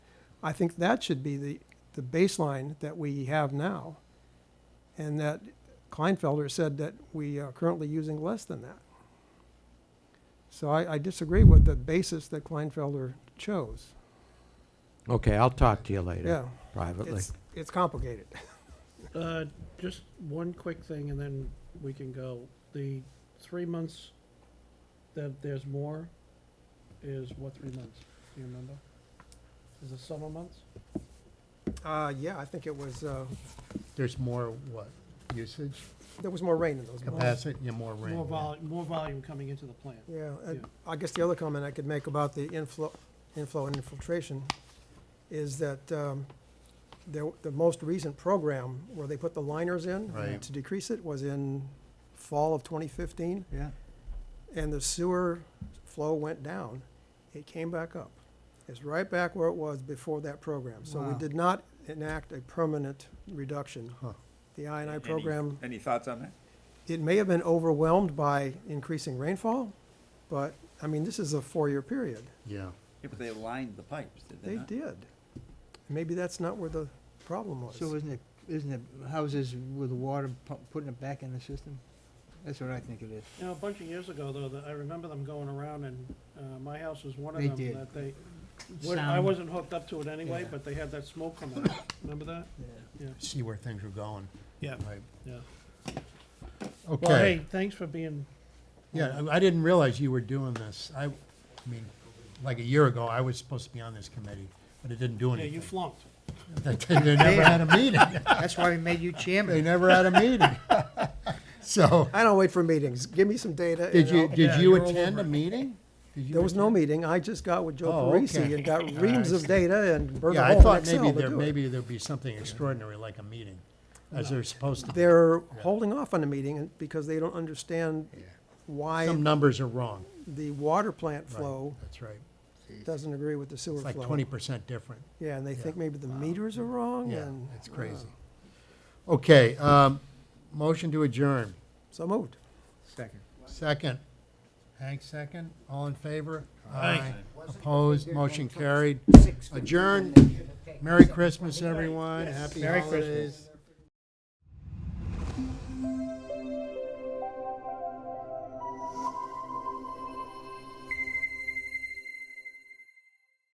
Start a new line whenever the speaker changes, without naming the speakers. I think that should be the, the baseline that we have now. And that Kleinfelder said that we are currently using less than that. So I, I disagree with the basis that Kleinfelder chose.
Okay, I'll talk to you later
Yeah,
privately.
it's, it's complicated.
Uh, Just one quick thing, and then we can go. The three months that there's more is what three months? Do you remember? Is it summer months?
Uh, yeah, I think it was, uh,
There's more what? Usage,
there was more rain in those months.
capacity, yeah, more rain.
More
yeah.
vol, more volume coming into the plant.
Yeah, and
Yeah.
I guess the other comment I could make about the inflow, inflow and infiltration is that, um, there, the most recent program where they put the liners in
Right.
to decrease it was in fall of twenty fifteen,
Yeah.
and the sewer flow went down. It came back up. It's right back where it was before that program. So we
Wow.
did not enact a permanent reduction.
Huh.
The I and I
Any-
program
Any thoughts on that?
it may have been overwhelmed by increasing rainfall, but, I mean, this is a four-year period.
Yeah,
Yeah, but they lined the pipes, did they
They
not?
did. Maybe that's not where the problem was.
So isn't it, isn't it houses with the water pu- putting it back in the system? That's what I think it is.
You know, a bunch of years ago, though, that I remember them going around and, uh, my house was one of
They
them
did.
that they, wa- I
Sound.
wasn't hooked up to it anyway,
Yeah.
but they had that smoke coming out. Remember that? Yeah.
see where things are going,
Yeah,
right?
yeah. Well,
Okay,
hey, thanks for being,
yeah, I I didn't realize you were doing this. I, I mean, like a year ago, I was supposed to be on this committee, but it didn't do
yeah, you
anything.
flunked.
They they never had a meeting.
That's why we made you
They
chairman.
never had a meeting. So,
I don't wait for meetings. Give me some data. and
did you,
I'll-
did
Yeah,
you
you're all
attend
over
a
it.
meeting? Did you
There was no
attend?
meeting. I just got with Joe
Oh,
Parisi
okay.
and got
All right,
reams
I
of
see.
data and burned a
Yeah,
hole
I
in
thought
Excel
maybe
to
there,
do it.
maybe there'd be something extraordinary like a meeting, as there's supposed to be.
They're holding off on the meeting and- because they don't understand
Some
why
numbers are wrong.
the water plant
Right,
flow
That's right.
doesn't agree with the sewer
It's
flow.
like twenty percent different.
Yeah, and they think
yeah.
maybe the meters are wrong
Yeah,
and. uh,
it's crazy. Okay, um, motion to adjourn.
So moved.
Second.
Second. Hank, second. All in favor? Aye. Opposed? Motion carried. Adjourn. Merry Christmas, everyone. Happy
Merry Christmas.
holidays.